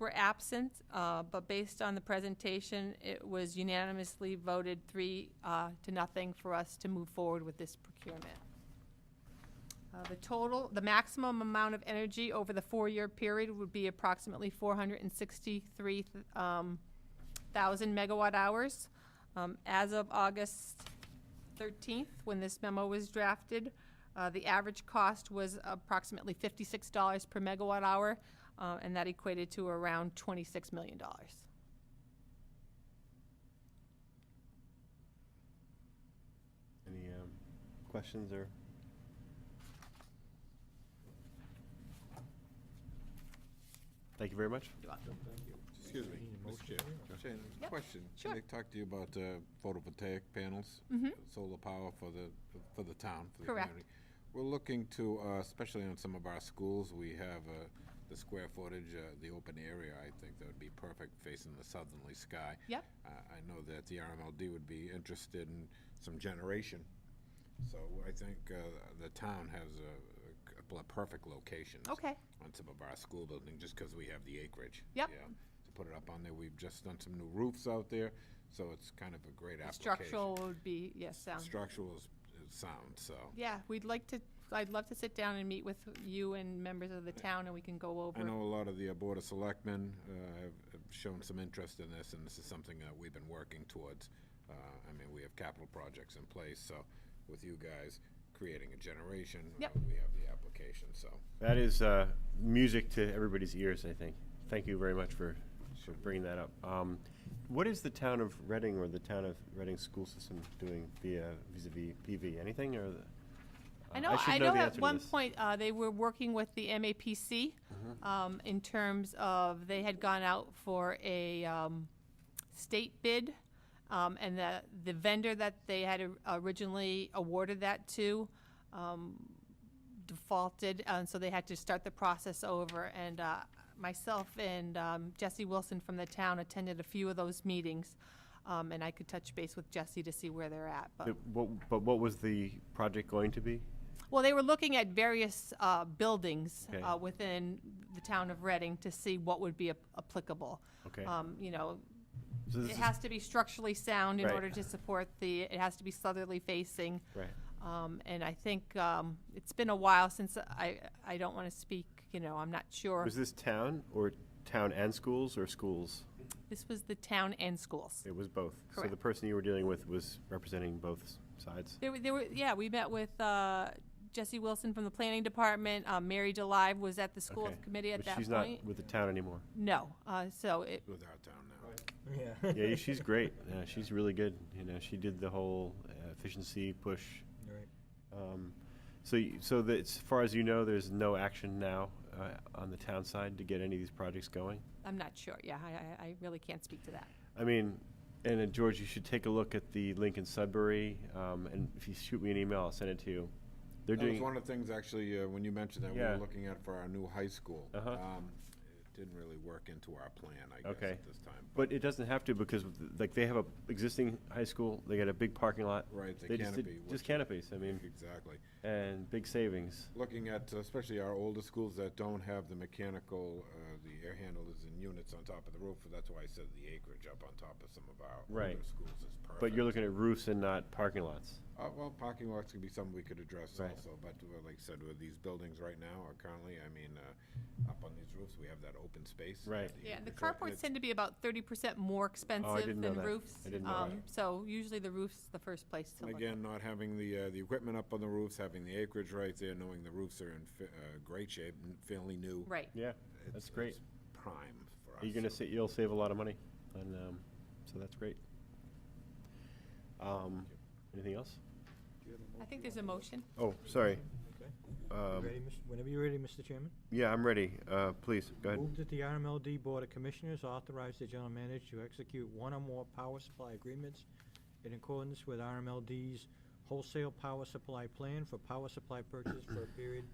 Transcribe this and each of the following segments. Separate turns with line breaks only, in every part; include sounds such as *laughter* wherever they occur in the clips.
were absent, uh, but based on the presentation, it was unanimously voted three uh, to nothing for us to move forward with this procurement. Uh, The total, the maximum amount of energy over the four-year period would be approximately 463 um, thousand megawatt hours. Um, As of August 13th, when this memo was drafted, uh, the average cost was approximately $56 per megawatt hour, uh, and that equated to around $26 million.
Any um, questions or? Thank you very much.
Excuse me, Mr. Chair. Jane,
Yep,
question.
sure. Mm-hmm.
Can I talk to you about uh, photovoltaic panels? Solar power for the, for the town, for the
Correct.
community? We're looking to, uh, especially on some of our schools, we have uh, the square footage, uh, the open area, I think that would be perfect facing the southerly sky.
Yep.
Uh, I know that the RMLD would be interested in some generation, so I think uh, the town has a- a couple of perfect locations
Okay.
on some of our school building, just because we have the acreage.
Yep.
Yeah, To put it up on there, we've just done some new roofs out there, so it's kind of a great application.
Structural would be, yes, sound.
Structural is, is sound, so.
Yeah, we'd like to, I'd love to sit down and meet with you and members of the town, and we can go
I
over.
know a lot of the uh, Board of Selectmen uh, have have shown some interest in this, and this is something that we've been working towards. Uh, I mean, we have capital projects in place, so with you guys creating a generation, uh,
Yep.
we have the application, so.
That is uh, music to everybody's ears, I think. Thank you very much for, for bringing that up. Um, what is the town of Reading or the town of Reading school system doing via vis-a-vis PV? Anything or? The,
I
Uh,
know,
should
I know
the
at
answer to
one
this. Mm-hmm.
point, uh, they were working with the MAPC, um, in terms of, they had gone out for a, um, state bid, um, and the, the vendor that they had or- originally awarded that to, um, defaulted, uh, and so they had to start the process over, and, uh, myself and, um, Jesse Wilson from the town attended a few of those meetings, um, and I could touch base with Jesse to see where they're at, but.
The- what, but what was the project going to be?
Well, they were looking at various uh, buildings
Okay.
uh, within the town of Reading to see what would be ap- applicable.
Okay.
Um, You know,
So this
it
is-
has to be structurally sound in
Right.
order to support the, it has to be southerly facing.
right.
Um, And I think um, it's been a while since, I, I don't want to speak, you know, I'm not sure.
Was this town or town and schools or schools?
This was the town and schools.
It was both. So the
Correct.
person you were dealing with was representing both s- sides.
There were, there were, yeah, we met with uh, Jesse Wilson from the planning department. Uh, Mary Delive was at the school
Okay.
committee at
But
that
she's not
point.
with the town anymore.
No, Uh, so it,
With our town now.
Yeah.
yeah,
*laughs*
she's great. Yeah, she's really good. You know, she did the whole uh, efficiency push.
Right.
Um, so, you, so that as far as you know, there's no action now uh, on the town side to get any of these projects going.
I'm not sure, yeah, I, I, I really can't speak to that.
I mean, and uh, George, you should take a look at the Lincoln Sudbury, um, and if you shoot me an email, I'll send it to you. They're
That was
doing
one of the things, actually, uh, when you mentioned that, we
Yeah.
were looking at for our new high school.
Uh-huh.
Um, It didn't really work into our plan, I guess,
Okay.
at this time.
But it doesn't have to because with the- like they have a existing high school, they got a big parking lot.
Right, the
They just did-
canopy,
Just
which-
canopies, I mean,
Exactly.
and big savings.
Looking at uh, especially our older schools that don't have the mechanical, uh, the air handlers and units on top of the roof, that's why I said the acreage up on top of some of our older
Right.
schools is perfect.
But you're looking at roofs and not parking lots.
Uh, well, parking lots could be something we could address
Right.
also, but uh, like I said, with these buildings right now, or currently, I mean, uh, up on these roofs, we have that open space.
Right.
Yeah, the
acreage, and
carports
it's-
tend to be about thirty percent more expensive
Oh, didn't know
than
that.
roofs.
I didn't know
um,
that.
So usually the roof's the first place to
And
look.
Again, not having the, uh, the equipment up on the roofs, having the acreage right there, knowing the roofs are in fa- uh, great shape, n- fairly new.
Right,
Yeah,
It's-
that's great.
it's Prime for us.
You're gonna
so-
sa- you'll save a lot of money, and um, so that's great. Um, anything else?
I think there's a motion.
Oh, sorry.
Okay. You
Um,
ready, Mis- Whenever you're ready, Mr. Chairman.
yeah, I'm ready. Uh, please go ahead.
Move that the RMLD Board of Commissioners authorize the general manager to execute one or more power supply agreements in accordance with RMLD's wholesale power supply plan for power supply purchase for
*coughs*
a period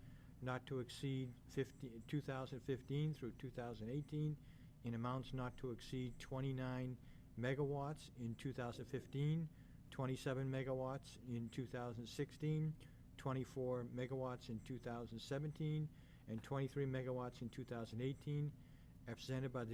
not to exceed 50 2015 through two thousand eighteen in amounts not to exceed twenty-nine megawatts in 2015, 27 megawatts in 2016, 24 megawatts in two thousand seventeen, and twenty-three megawatts in two thousand eighteen, presented by the